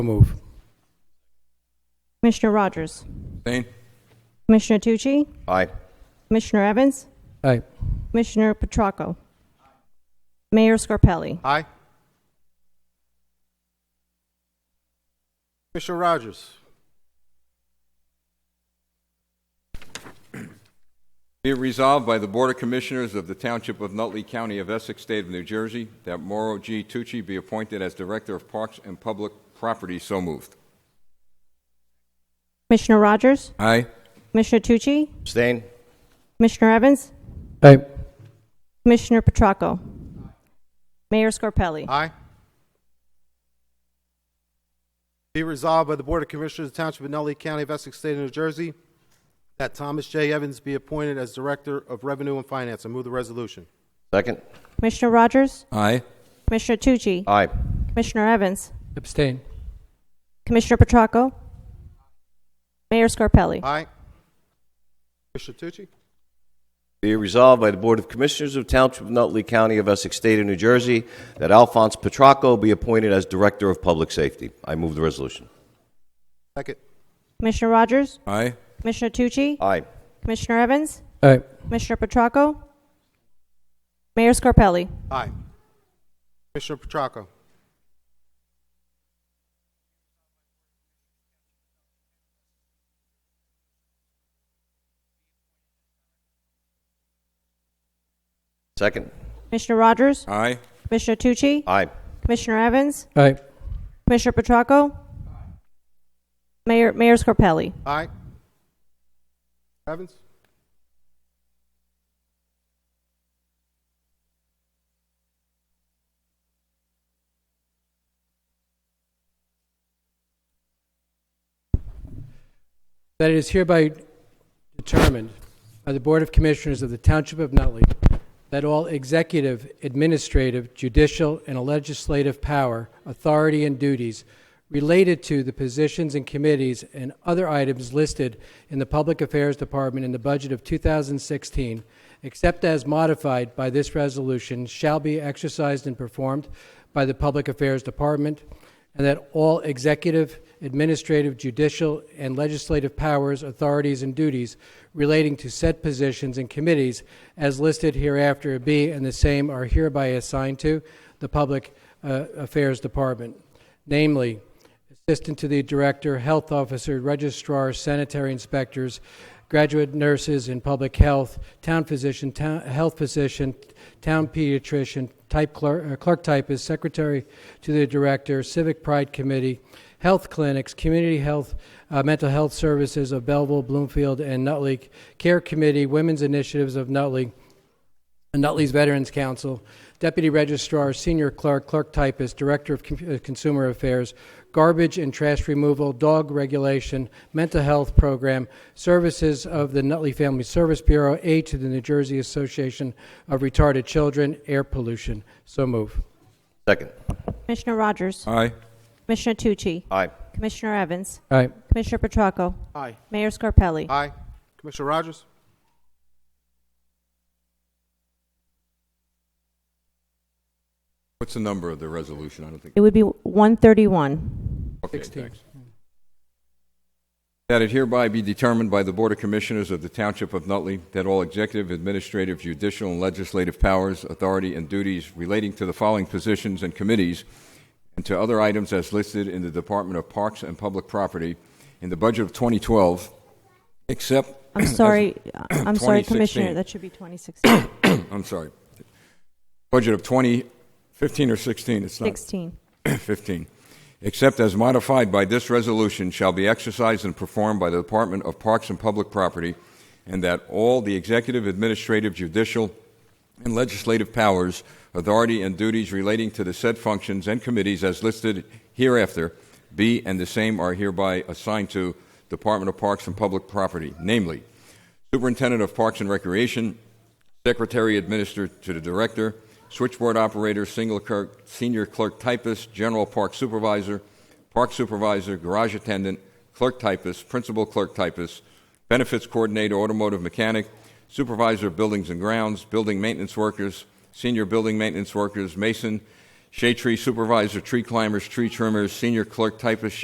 move. Commissioner Rogers? Abstain. Commissioner Tucci? Aye. Commissioner Evans? Aye. Commissioner Petracco? Mayor Scarpelli? Aye. Commissioner Rogers. Be it resolved by the Board of Commissioners of the Township of Nutley County of Essex, State of New Jersey, that Mauro G. Tucci be appointed as Director of Parks and Public Property. So moved. Commissioner Rogers? Aye. Commissioner Tucci? Abstain. Commissioner Evans? Aye. Commissioner Petracco? Mayor Scarpelli? Aye. Be resolved by the Board of Commissioners of the Township of Nutley County of Essex State of New Jersey that Thomas J. Evans be appointed as Director of Revenue and Finance. I move the resolution. Second. Commissioner Rogers? Aye. Commissioner Tucci? Aye. Commissioner Evans? Abstain. Commissioner Petracco? Mayor Scarpelli? Aye. Commissioner Tucci? Be it resolved by the Board of Commissioners of Township of Nutley County of Essex State of New Jersey that Alphonse Petracco be appointed as Director of Public Safety. I move the resolution. Second. Commissioner Rogers? Aye. Commissioner Tucci? Aye. Commissioner Evans? Aye. Commissioner Petracco? Mayor Scarpelli? Aye. Commissioner Petracco? Second. Commissioner Rogers? Aye. Commissioner Tucci? Aye. Commissioner Evans? Aye. Commissioner Petracco? Mayor, Mayor Scarpelli? Aye. Evans? That it is hereby determined by the Board of Commissioners of the Township of Nutley that all executive, administrative, judicial, and legislative power, authority, and duties related to the positions and committees and other items listed in the Public Affairs Department in the budget of 2016, except as modified by this resolution, shall be exercised and performed by the Public Affairs Department, and that all executive, administrative, judicial, and legislative powers, authorities, and duties relating to said positions and committees as listed hereafter be and the same are hereby assigned to the Public uh, Affairs Department, namely, Assistant to the Director, Health Officer, Registrar, Sanitary Inspectors, Graduate Nurses in Public Health, Town Physician, town- Health Physician, Town Pediatrician, Type Clerk, uh, Clerk Typist, Secretary to the Director, Civic Pride Committee, Health Clinics, Community Health, uh, Mental Health Services of Belleville, Bloomfield, and Nutley, Care Committee, Women's Initiatives of Nutley, Nutley's Veterans Council, Deputy Registrar, Senior Clerk, Clerk Typist, Director of Com- uh, Consumer Affairs, Garbage and Trash Removal, Dog Regulation, Mental Health Program, Services of the Nutley Family Service Bureau, aid to the New Jersey Association of Retarded Children, Air Pollution. So move. Second. Commissioner Rogers? Aye. Commissioner Tucci? Aye. Commissioner Evans? All right. Commissioner Petracco? Aye. Mayor Scarpelli? Aye. Commissioner Rogers? What's the number of the resolution? I don't think. It would be 131. Okay, 16. thanks. That it hereby be determined by the Board of Commissioners of the Township of Nutley that all executive, administrative, judicial, and legislative powers, authority, and duties relating to the following positions and committees and to other items as listed in the Department of Parks and Public Property in the budget of 2012, except. I'm sorry, I'm sorry, 2016. Commissioner, that should be 2016. I'm sorry. Budget of 2015 or 16, it's not. 16. 15, except as modified by this resolution, shall be exercised and performed by the Department of Parks and Public Property, and that all the executive, administrative, judicial, and legislative powers, authority, and duties relating to the said functions and committees as listed hereafter be and the same are hereby assigned to Department of Parks and Public Property, namely, Superintendent of Parks and Recreation, Secretary Administer to the Director, Switchboard Operator, Single clerk, Senior Clerk Typist, General Park Supervisor, Park Supervisor, Garage Attendant, Clerk Typist, Principal Clerk Typist, Benefits Coordinator, Automotive Mechanic, Supervisor of Buildings and Grounds, Building Maintenance Workers, Senior Building Maintenance Workers, Mason, Shade Tree Supervisor, Tree Climbers, Tree Trimmers, Senior Clerk Typist,